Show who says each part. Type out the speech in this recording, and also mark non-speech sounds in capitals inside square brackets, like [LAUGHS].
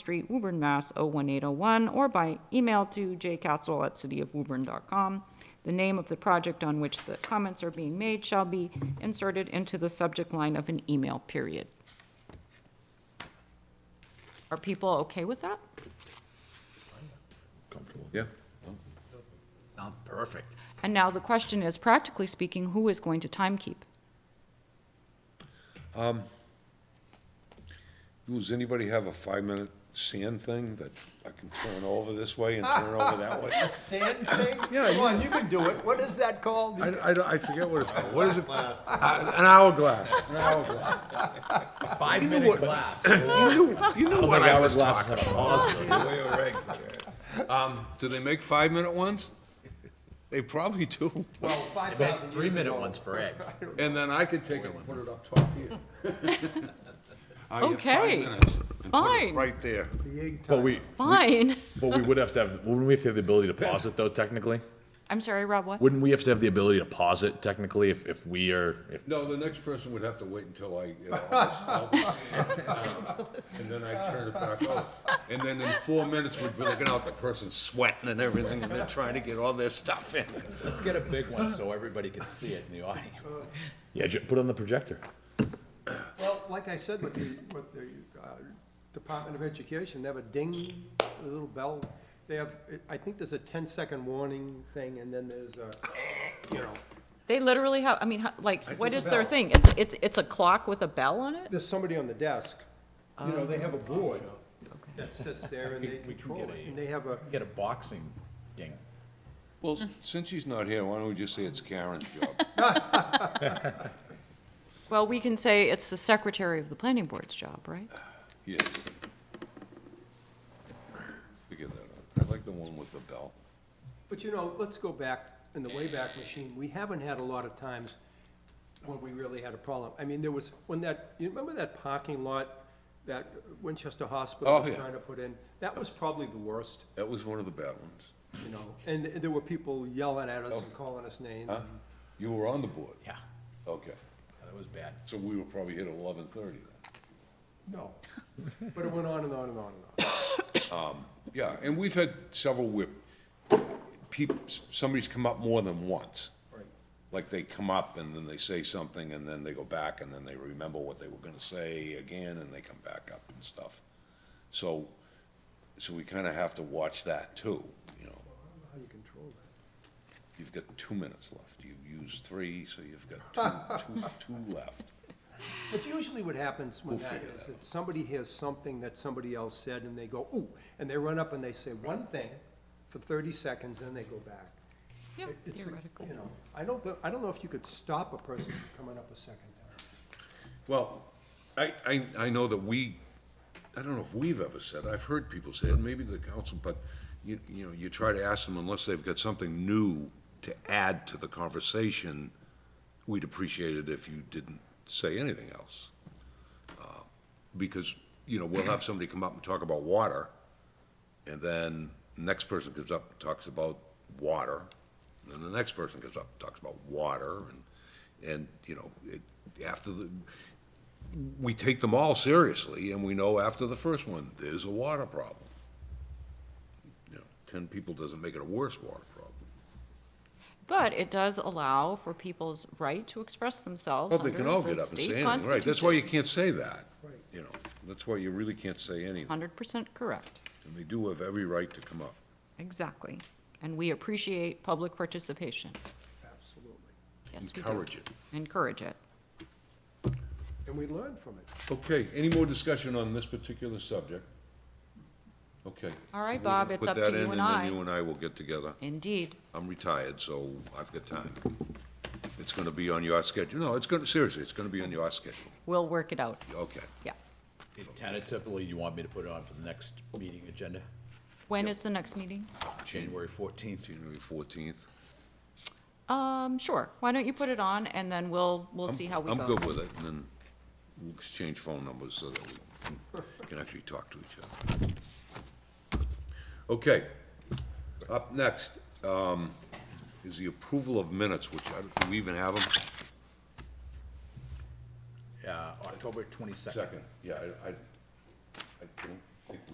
Speaker 1: Street, Woburn, Mass. 01801, or by email to jcastle@cityofwoburn.com. The name of the project on which the comments are being made shall be inserted into the subject line of an email, period. Are people okay with that?
Speaker 2: Yeah.
Speaker 3: Sounds perfect.
Speaker 1: And now the question is, practically speaking, who is going to timekeep?
Speaker 2: Does anybody have a five-minute sand thing that I can turn over this way and turn over that [LAUGHS] way?
Speaker 3: A sand thing?
Speaker 2: Yeah,
Speaker 3: Come on, you can do it. What is that called?
Speaker 2: I, I don't- I forget what it's called. What is it? Uh, An hourglass, an hourglass.
Speaker 3: Five minute
Speaker 4: [CLEARS THROAT]
Speaker 3: glass.
Speaker 2: You knew, you knew what I was
Speaker 4: hourglass
Speaker 2: talking about. Um, do they make five-minute ones? They probably do.
Speaker 3: Well, five minute. Three minute ones for eggs.
Speaker 2: And then I could take a one. Put it up top here. I have five
Speaker 1: Okay.
Speaker 2: minutes. And put it
Speaker 1: Fine.
Speaker 2: Right there.
Speaker 4: But we,
Speaker 1: Fine. [LAUGHS]
Speaker 4: but we would have to have, wouldn't we have to have the ability to pause it though, technically?
Speaker 1: I'm sorry, Rob, what?
Speaker 4: Wouldn't we have to have the ability to pause it technically if, if we are, if,
Speaker 2: No, the next person would have to wait until I, you know, [LAUGHS] all this- all this sand out, and then I turn it back on. And then in four minutes, we'd be looking out, the person's sweating and everything, and they're trying to get all their stuff in.
Speaker 3: Let's get a big one so everybody can see it in the audience.
Speaker 4: yeah, ju- put it on the projector.
Speaker 5: Well, like I said, with the, with the uh, Department of Education, they have a ding, a little bell. They have, I think there's a ten-second warning thing, and then there's a, you know,
Speaker 1: They literally have, I mean, how- like, what
Speaker 5: there's
Speaker 1: is
Speaker 5: a
Speaker 1: their
Speaker 5: bell.
Speaker 1: thing? It's, it's, it's a clock with a bell on it?
Speaker 5: there's somebody on the desk. You know, they have a board that sits there and they
Speaker 3: Oh. We- we can
Speaker 5: control
Speaker 3: get
Speaker 5: it,
Speaker 3: a-
Speaker 5: and they have a,
Speaker 3: Get a boxing ding.
Speaker 2: Well, since she's not here, why don't we just say it's Karen's job? [LAUGHS]
Speaker 1: Well, we can say it's the secretary of the planning board's job, right?
Speaker 2: Yes. Figure that out. I like the one with the bell.
Speaker 5: but you know, let's go back, in the Wayback Machine, we haven't had a lot of times when we really had a problem. I mean, there was, when that, you remember that parking lot that Winchester
Speaker 2: Oh,
Speaker 5: Hospital was
Speaker 2: yeah.
Speaker 5: trying to put in? That was probably the worst.
Speaker 2: That was one of the bad ones.
Speaker 5: you know, and th- there were people yelling at us and calling us names.
Speaker 2: Oh. Huh? You were on the board?
Speaker 3: Yeah,
Speaker 2: Okay.
Speaker 3: that was bad.
Speaker 2: So we were probably here at eleven thirty then.
Speaker 5: No, but it went on and on and on and on.
Speaker 2: Yeah, and we've had several where people, somebody's come up more than once.
Speaker 5: Right.
Speaker 2: like they come up and then they say something and then they go back and then they remember what they were gonna say again and they come back up and stuff. So, so we kinda have to watch that too, you know.
Speaker 5: How do you control that?
Speaker 2: You've got two minutes left. You've used three, so you've got two, two, two left.
Speaker 5: But usually what happens when
Speaker 2: We'll
Speaker 5: that
Speaker 2: figure
Speaker 5: is that somebody hears something that somebody else said and they go, ooh, and they run up and they say one thing for thirty seconds, then they go back.
Speaker 1: Yeah,
Speaker 5: It- it's a-
Speaker 1: theoretically.
Speaker 5: You know, I don't, thi- I don't know if you could stop a person from coming up a second time.
Speaker 2: Well, I, I, I know that we, I don't know if we've ever said, I've heard people say it, maybe the council, but you, you know, you try to ask them unless they've got something new to add to the conversation, we'd appreciate it if you didn't say anything else. Uh, Because, you know, we'll have somebody come up and talk about water, and then next person comes up and talks about water, and then the next person comes up and talks about water, and, and, you know, it, after the, we take them all seriously, and we know after the first one, there's a water problem. You know, ten people doesn't make it a worse water problem.
Speaker 1: But it does allow for people's right to express themselves
Speaker 2: Well, they can all
Speaker 1: under
Speaker 2: get
Speaker 1: the
Speaker 2: up and say
Speaker 1: state
Speaker 2: anything, right, that's why you can't say that.
Speaker 5: Right.
Speaker 2: You know, that's why you really can't say anything,
Speaker 1: Hundred percent correct,
Speaker 2: and they do have every right to come up.
Speaker 1: exactly. And we appreciate public participation.
Speaker 5: Absolutely.
Speaker 1: Yes, we do.
Speaker 2: Encourage it.
Speaker 1: Encourage it.
Speaker 5: And we learn from it.
Speaker 2: Okay, any more discussion on this particular subject? Okay.
Speaker 1: All right,
Speaker 2: We'll
Speaker 1: Bob, it's
Speaker 2: put
Speaker 1: up to
Speaker 2: that
Speaker 1: you
Speaker 2: in,
Speaker 1: and I.
Speaker 2: then you and I will get together.
Speaker 1: Indeed.
Speaker 2: I'm retired, so I've got time. It's gonna be on your schedule, no, it's gonna, seriously, it's gonna be on your schedule,
Speaker 1: We'll work it out,
Speaker 2: okay.
Speaker 1: yeah.
Speaker 3: Tentatively, you want me to put it on for the next meeting agenda,
Speaker 1: When is the next meeting?
Speaker 3: January fourteenth?
Speaker 2: January fourteenth.
Speaker 1: Um, sure, why don't you put it on, and then we'll, we'll see how we
Speaker 2: I'm
Speaker 1: go.
Speaker 2: good with it, and then we'll exchange phone numbers so that we can- can actually talk to each other. Okay, up next, um, is the approval of minutes, which I, do we even have them?
Speaker 3: Uh, October twenty-second.
Speaker 2: Yeah, I, I, I don't